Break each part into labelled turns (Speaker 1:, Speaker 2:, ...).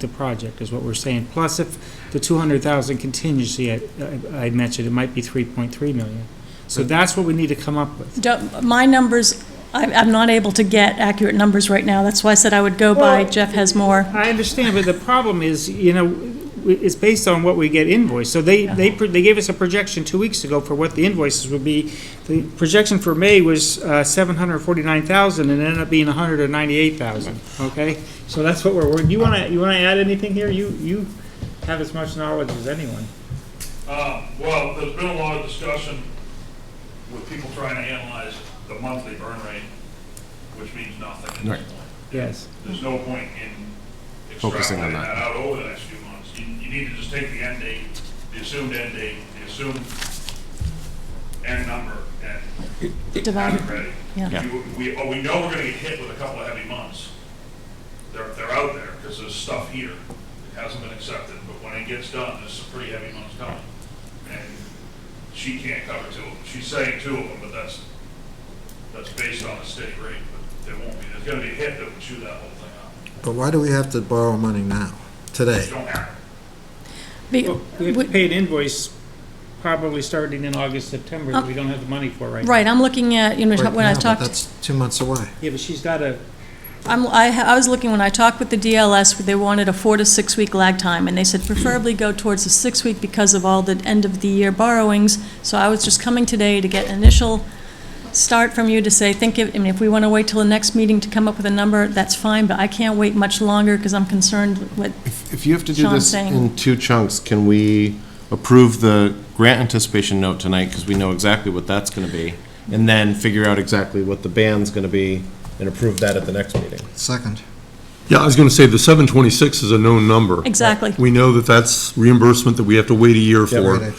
Speaker 1: the project, is what we're saying. Plus, if the 200,000 contingency I I- I mentioned, it might be 3.3 million. So that's what we need to come up with.
Speaker 2: Don't- My numbers, I- I'm not able to get accurate numbers right now. That's why I said I would go by
Speaker 1: Well-
Speaker 2: Jeff has more.
Speaker 1: I understand, but the problem is, you know, w- it's based on what we get invoiced. So they, they, pr- they gave us a projection two weeks ago for what the invoices would be. The projection for May was uh, 749,000 and it ended up being 198,000, okay? So that's what we're, you want to, you want to add anything here? You, you have as much knowledge as anyone.
Speaker 3: Uh, Well, there's been a lot of discussion with people trying to analyze the monthly burn rate, which means nothing at
Speaker 4: Right.
Speaker 3: this point.
Speaker 1: Yes.
Speaker 3: There's no point in
Speaker 4: Focusing on
Speaker 3: extrapolating
Speaker 4: that.
Speaker 3: that out over the next few months. You you need to just take the end date, the assumed end date, the assumed end number, and have
Speaker 2: Divided.
Speaker 3: it ready.
Speaker 2: Um, Yeah.
Speaker 3: You- We, oh, we know we're gonna get hit with a couple of heavy months. They're, they're out there, because there's stuff here that hasn't been accepted, but when it gets done, there's some pretty heavy months coming. And she can't cover two of them, she's saying two of them, but that's, that's based on a steady rate, but there won't be, there's gonna be a hit that would chew that whole thing up.
Speaker 5: But why do we have to borrow money now, today?
Speaker 3: You don't have it.
Speaker 2: Be-
Speaker 1: Well, We have to
Speaker 2: would-
Speaker 1: pay an invoice probably starting in August, September, that we don't have the money for right now.
Speaker 2: Right, I'm looking at, you know,
Speaker 5: Right
Speaker 2: when I
Speaker 5: now, but
Speaker 2: talked,
Speaker 5: That's two months away.
Speaker 1: Yeah, but she's got a,
Speaker 2: I'm, I, ha- I was looking, when I talked with the DLS, they wanted a four to six week lag time, and they said preferably go towards the six week because of all the end of the year borrowings. So I was just coming today to get initial start from you to say, think, if- I mean, if we want to wait till the next meeting to come up with a number, that's fine, but I can't wait much longer because I'm concerned with
Speaker 4: If you have to do
Speaker 2: Sean's
Speaker 4: this
Speaker 2: saying-
Speaker 4: in two chunks, can we approve the grant anticipation note tonight, because we know exactly what that's gonna be, and then figure out exactly what the band's gonna be, and approve that at the next meeting?
Speaker 5: Second.
Speaker 6: Yeah, I was going to say, the 726 is a known number.
Speaker 2: Exactly.
Speaker 6: We know that that's reimbursement that we have to wait a year
Speaker 5: Great
Speaker 6: for,
Speaker 5: idea.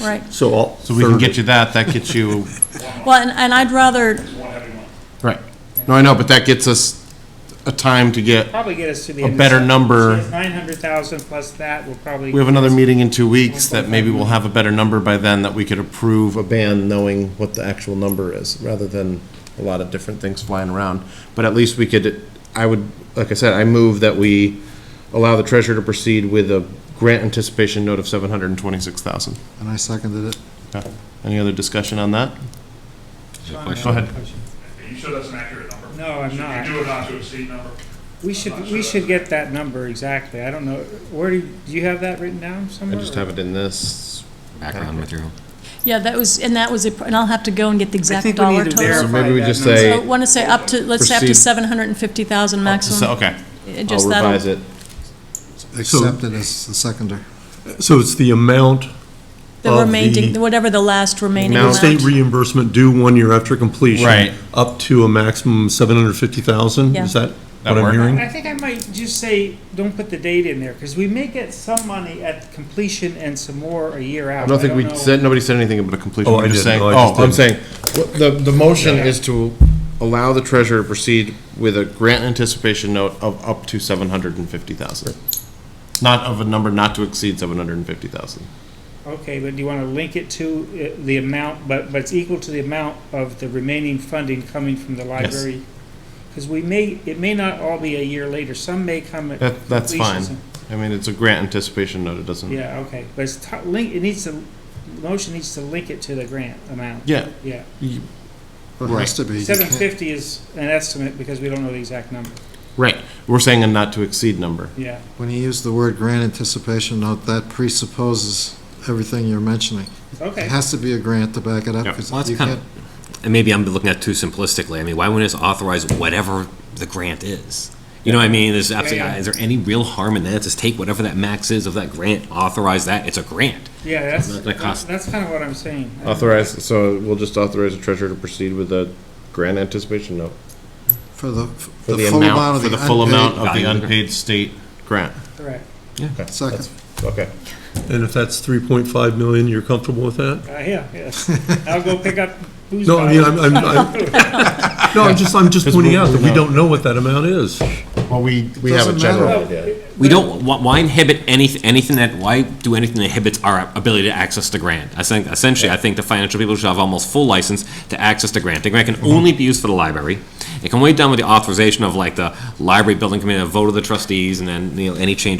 Speaker 2: Right.
Speaker 6: so I'll.
Speaker 4: So we can get you that, that gets you,
Speaker 2: Well, and, and I'd rather,
Speaker 3: one heavy month.
Speaker 4: right. No, I know, but that gets us a time to get,
Speaker 1: probably get us to the.
Speaker 4: A
Speaker 1: end of
Speaker 4: better
Speaker 1: September.
Speaker 4: number.
Speaker 1: She has 900,000 plus that will probably.
Speaker 4: we have another meeting in two weeks, that maybe we'll have a better number by then, that we could approve a band knowing what the actual number is, rather than a lot of different things flying around. But at least we could, I would, like I said, I move that we allow the treasurer to proceed with a grant anticipation note of seven hundred and twenty-six thousand.
Speaker 5: And I seconded it.
Speaker 4: Any other discussion on that? Go ahead.
Speaker 3: Are you sure that's an accurate number?
Speaker 1: No, I'm
Speaker 3: Should
Speaker 1: not.
Speaker 3: you do a not to exceed number?
Speaker 1: We should, we should get that number exactly. I don't know, where do, do you have that written down
Speaker 4: I
Speaker 1: somewhere?
Speaker 4: just have it in this.
Speaker 7: background material.
Speaker 2: yeah, that was, and that was, a- and I'll have to go and get the
Speaker 1: I
Speaker 2: exact
Speaker 1: think we
Speaker 2: dollar
Speaker 1: need to
Speaker 2: total.
Speaker 4: verify
Speaker 1: verify
Speaker 4: maybe we
Speaker 1: that
Speaker 4: just
Speaker 1: number.
Speaker 4: say-
Speaker 2: So I want to say up to, let's say up to
Speaker 4: Proceed.
Speaker 2: 750,000
Speaker 4: So,
Speaker 2: maximum.
Speaker 4: Okay,
Speaker 2: It just
Speaker 4: I'll
Speaker 2: that'll-
Speaker 4: revise it.
Speaker 5: Accepted as the seconder.
Speaker 6: So it's the amount
Speaker 2: The
Speaker 6: of
Speaker 2: remaining,
Speaker 6: the-
Speaker 2: whatever the last remaining
Speaker 4: Amount.
Speaker 2: amount.
Speaker 6: state reimbursement due one year after completion.
Speaker 4: Right.
Speaker 6: Up to a maximum 750,000, is
Speaker 2: Yeah.
Speaker 6: that
Speaker 4: That
Speaker 6: what I'm
Speaker 4: work?
Speaker 6: hearing?
Speaker 1: I think I might just say, don't put the date in there, because we may get some money at completion and some more a year out.
Speaker 4: I don't think we
Speaker 1: know.
Speaker 4: said, nobody said anything about a completion.
Speaker 6: Oh,
Speaker 4: We're
Speaker 6: I
Speaker 4: just
Speaker 6: didn't.
Speaker 4: saying-
Speaker 6: No, I
Speaker 4: Oh,
Speaker 6: just
Speaker 4: I'm saying,
Speaker 6: didn't.
Speaker 4: what- the, the motion is to allow the treasurer to proceed with a grant anticipation note of up to seven hundred and fifty thousand. Not of a number not to exceed seven hundred and fifty thousand.
Speaker 1: Okay, but do you want to link it to uh, the amount, but, but it's equal to the amount of the remaining funding coming from the library? Because we may, it may not all be a year later, some may come at.
Speaker 4: That, that's
Speaker 1: completion,
Speaker 4: fine.
Speaker 1: some-
Speaker 4: I mean, it's a grant anticipation note, it doesn't,
Speaker 1: Yeah, okay, but it's ti- link, it needs to, the motion needs to link it to the grant amount.
Speaker 4: yeah,
Speaker 1: Yeah,
Speaker 5: Well, It has to be. You
Speaker 1: seven
Speaker 5: can't-
Speaker 1: fifty is an estimate because we don't know the exact number,
Speaker 4: right. We're saying a not to exceed number.
Speaker 1: yeah.
Speaker 5: When you use the word grant anticipation note, that presupposes everything you're mentioning. It
Speaker 1: Okay,
Speaker 5: has to be a grant to back it up,
Speaker 4: Yeah.
Speaker 7: Well,
Speaker 5: because
Speaker 7: it's
Speaker 5: you
Speaker 7: kind of-
Speaker 5: can't,
Speaker 7: And maybe I'm looking at it too simplistically. I mean, why wouldn't it just authorize whatever the grant is? You know what I mean? There's absolutely,
Speaker 1: Yeah, yeah.
Speaker 7: is there any real harm in that? Just take whatever that max is of that grant, authorize that. It's a grant.
Speaker 1: yeah,
Speaker 7: Not gonna
Speaker 1: that's,
Speaker 7: cost-
Speaker 1: that's kind of what I'm saying.
Speaker 4: Authorize, so we'll just authorize the treasurer to proceed with a grant anticipation note.
Speaker 5: for the,
Speaker 4: For
Speaker 5: the
Speaker 4: the
Speaker 5: full amount
Speaker 4: amount,
Speaker 5: of
Speaker 4: for
Speaker 5: the
Speaker 4: the full amount of
Speaker 5: unpaid.
Speaker 4: the
Speaker 7: Value of the grant.
Speaker 4: unpaid state grant.
Speaker 1: Correct,
Speaker 5: Second.
Speaker 4: Okay.
Speaker 6: And if that's 3.5 million, you're comfortable with that?
Speaker 1: uh, yeah, yes, I'll go pick up booze
Speaker 6: No, I mean, I'm,
Speaker 1: bottles.
Speaker 6: I'm, I'm- no, I'm just, I'm just
Speaker 4: Because
Speaker 6: pointing
Speaker 4: we-
Speaker 6: out that
Speaker 4: we
Speaker 6: we
Speaker 4: know.
Speaker 6: don't know what that amount is.
Speaker 4: Well, we, we have a
Speaker 5: Doesn't
Speaker 4: general
Speaker 5: matter.
Speaker 4: idea.
Speaker 7: We don't, why- why inhibit any, anything that, why do anything that inhibits our ability to access the grant? I think, essentially, I think the financial people should have almost full license to access the grant. The grant can only be used for the library. It can wait down with the authorization of like the library building committee, a vote of the trustees, and then, you know, any change